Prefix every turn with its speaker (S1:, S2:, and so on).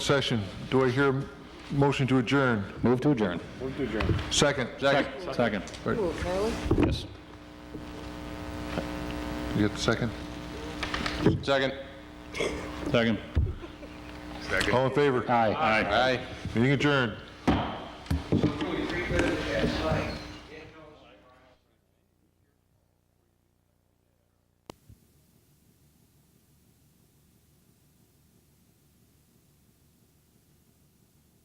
S1: session. Do I hear a motion to adjourn?
S2: Move to adjourn.
S1: Second.
S2: Second. Yes.
S1: You get the second?
S3: Second.
S2: Second.
S1: All in favor?
S2: Aye. Aye.
S3: Aye.
S1: Meeting adjourned.